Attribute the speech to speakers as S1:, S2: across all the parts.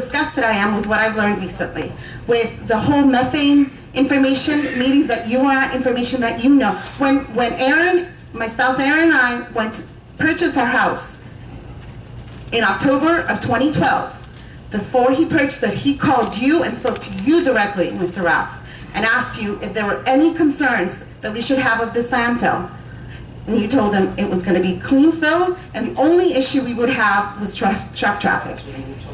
S1: disgusted I am with what I've learned recently, with the whole methane information, meetings that you were at, information that you know. When, when Aaron, my spouse Aaron and I went to purchase our house in October of 2012, before he purchased it, he called you and spoke to you directly, Mr. Rouse, and asked you if there were any concerns that we should have of this landfill. And you told him it was gonna be clean fill, and the only issue we would have was truck, truck traffic.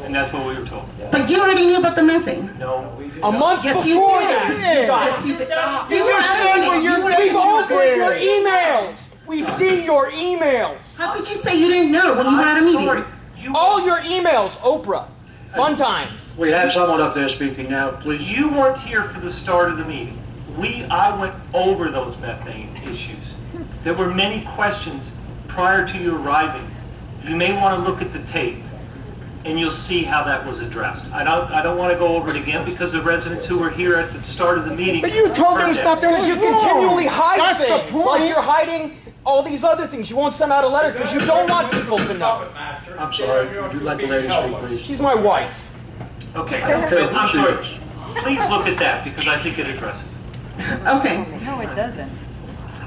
S2: And that's what we were told.
S1: But you already knew about the methane.
S2: No, we
S3: A month
S1: Yes, you
S3: before
S1: did.
S3: that.
S1: You Yes, you did.
S3: You
S1: were
S3: just
S1: adamant.
S3: said when
S1: You
S3: you're
S1: were
S3: we open your
S1: adamant.
S3: emails. We see your emails.
S1: How could you say you didn't know when you were at a
S2: I'm sorry.
S1: meeting?
S2: You,
S3: All your emails, Oprah. Fun times.
S4: We have someone up there speaking now, please.
S2: you weren't here for the start of the meeting. We, I went over those methane issues. There were many questions prior to you arriving. You may want to look at the tape and you'll see how that was addressed. I don't, I don't want to go over it again because the residents who were here at the start of the meeting.
S5: But you told them it's not their-
S2: heard
S3: Because you
S5: What's wrong?
S3: continually hide
S5: That's the
S3: things.
S5: point.
S3: Like you're hiding all these other things. You won't send out a letter because you don't want people to know.
S4: I'm sorry, would you let the lady speak, please?
S3: She's my wife.
S2: that. Okay,
S4: I don't care
S2: but
S4: who
S2: I'm
S4: she
S2: sorry.
S4: is.
S2: Please look at that because I think it addresses it.
S1: Okay,
S6: No, it doesn't.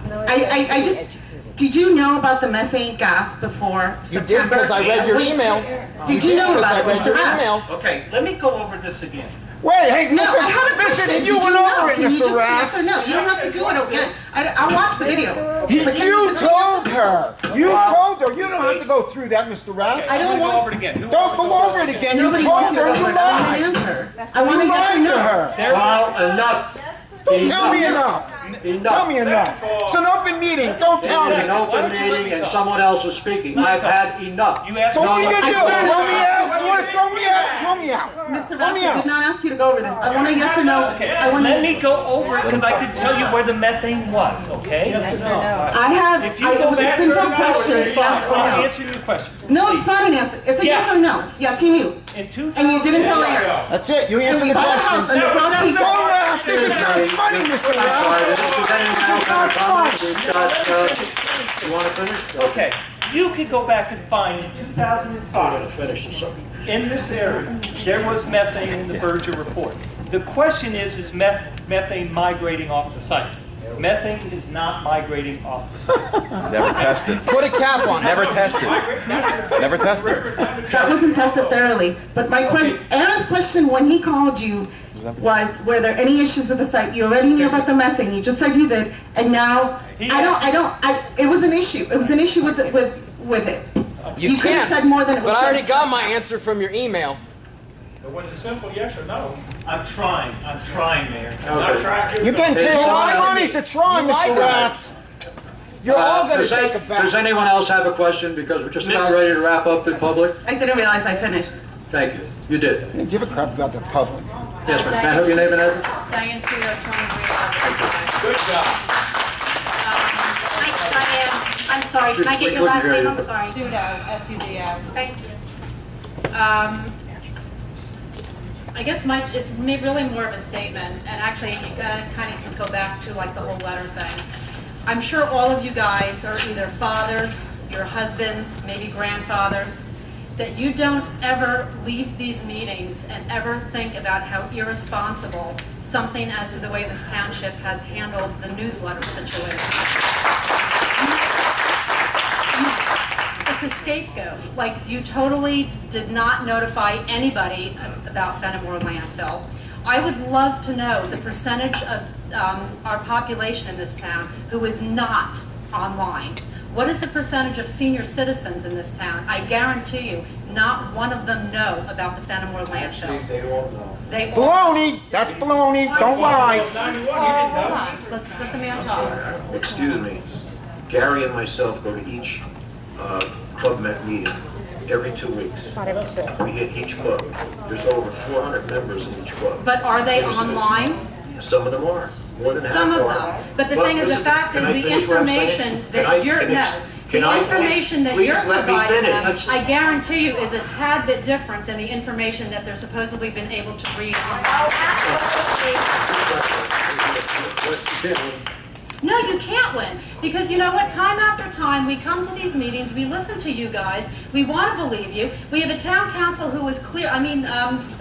S1: I, I, I just, did you know about the methane gas before
S3: You did
S1: September? Uh,
S3: because I read your
S1: Wait,
S3: email.
S1: Did you know
S3: Because
S1: about
S3: I
S1: it,
S3: read
S1: Mr.
S3: your
S1: Rath?
S3: email.
S2: Okay, let me go over this again.
S5: Wait, hey,
S1: No, I
S5: listen,
S1: have a question.
S5: listen, you
S1: Did
S5: went
S1: know?
S5: over it,
S1: Can you just
S5: Mr.
S1: say
S5: Rath.
S1: Yes or no, you don't have to do it again. I, I watched the video.
S5: He-
S1: But can
S5: You
S1: just say yes or
S5: told her, you told her, you don't have to go through that, Mr. Rath.
S1: I don't
S2: I'm gonna go
S1: want-
S2: over it again. Who wants
S5: Don't
S2: to
S5: go over it again, you
S1: Nobody
S5: told
S1: wants to
S5: her,
S1: go
S5: you
S1: over it. I want an
S5: lied.
S1: answer. I want a
S5: You
S1: yes or
S5: lied to
S1: no.
S5: her.
S4: Well, enough.
S5: Don't tell me enough, tell me enough. It's an open meeting, don't
S4: It
S5: tell
S4: is an
S5: me.
S2: Why
S4: open
S2: don't you let me
S4: meeting and
S2: talk?
S4: someone else is speaking. I've had enough.
S2: You asked
S5: So what are you
S4: No,
S5: gonna
S4: I
S5: do, throw
S4: can't.
S5: me out, you wanna throw me out, throw me out.
S1: Mr.
S5: Let
S1: Rath,
S5: me
S1: I
S5: out.
S1: did not ask you to go over this. I want a yes or no.
S2: Okay,
S1: I want to.
S2: let me go over it because I could tell you where the methane was, okay?
S6: Yes or no?
S1: I have,
S2: If you
S1: I- it
S2: go
S1: was a
S2: back
S1: simple
S2: for an hour,
S1: question,
S2: you're
S1: yes or
S2: fine. I'll
S1: no.
S2: answer your question.
S1: No, it's not an answer. It's a yes,
S2: Yes.
S1: or no. Yes, you knew.
S2: In 2000
S1: And you didn't tell Aaron.
S5: That's it, you
S1: And
S5: answered
S1: we
S5: the
S1: bought a
S5: question.
S1: house and the front
S5: Don't
S1: people.
S5: laugh, this is not funny, Mr.
S4: I'm
S5: Rath.
S4: sorry, if there's any more kind of comments, we've got, uh, you wanna finish?
S2: Okay, you could go back and find in
S4: I'm gonna
S2: 2005,
S4: finish this up.
S2: in this area, there was methane in the Berger report. The question is, is meth- methane migrating off the site? Methane is not migrating off the site.
S7: Never tested.
S3: Put a cap on it.
S7: Never tested. Never tested.
S1: That wasn't tested thoroughly. But my question, Aaron's question when he called you was, were there any issues with the site? You already knew about the methane. You just said you did, and now
S2: He
S1: I don't.
S2: asked-
S1: I don't. I. It was an issue. It was an issue with it. With with it. You could have
S3: can,
S1: said more than it was.
S3: But I already
S1: said.
S3: got my answer from your email.
S2: I'm trying, I'm trying, Mayor.
S4: Okay. Uh,
S5: You've been
S4: Hey,
S5: paying
S4: someone
S5: my
S4: else-
S5: money to try,
S3: lied
S5: Mr.
S3: to
S5: Rath. You're all
S4: Uh,
S5: gonna
S4: does
S5: take
S4: any-
S5: a
S4: Does
S5: bath.
S4: anyone else have a question? Because we're just about
S2: Miss-
S4: ready to wrap up in public.
S1: I didn't realize I finished.
S4: Thank you. You did.
S5: Give a crap about the public.
S4: Yes, ma'am. May I have your name and address?
S8: Diane Sudo, 23 Good job. Um, I am, I'm sorry, can I get your
S4: We couldn't
S8: last
S4: hear
S8: name?
S4: you.
S8: I'm sorry.
S6: Sudo, S-U-D-O.
S8: Thank you. Um, I guess my, it's me- really more of a statement, and actually, you gotta kind of go back to like the whole letter thing. I'm sure all of you guys are either fathers, your husbands, maybe grandfathers, that you don't ever leave these meetings and ever think about how irresponsible something as to the way this township has handled the newsletter situation. it's a scapegoat. Like, you totally did not notify anybody about Fenimore landfill. I would love to know the percentage of um, our population in this town who is not online. What is the percentage of senior citizens in this town? I guarantee you, not one of them know about the Fenimore landfill. They all know. They all.
S5: Baloney, that's baloney, don't lie.
S8: Hold on, let let the man talk.
S9: excuse me, Gary and myself go to each uh, Club Met meeting every two weeks. We hit each club. There's over 400 members in each club.
S8: But are they
S9: Yes, it is.
S8: online?
S9: Some of them are, more than half are.
S8: Some of them, but the thing is, the
S9: listen,
S8: fact
S9: can
S8: is,
S9: I
S8: the
S9: finish what I'm saying?
S8: information
S9: Can I-
S8: that you're,
S9: can ex-
S8: no,
S9: can I
S8: the
S9: finish?
S8: information that you're
S9: Please let me
S8: providing
S9: finish.
S8: them,
S9: Let's-
S8: I guarantee you, is a tad bit different than the information that they're supposedly been able to read online.
S4: What- what-
S8: No, you can't win. Because you know what? Time after time, we come to these meetings, we listen to you guys, we want to believe you. We have a town council who is clear, I mean, um,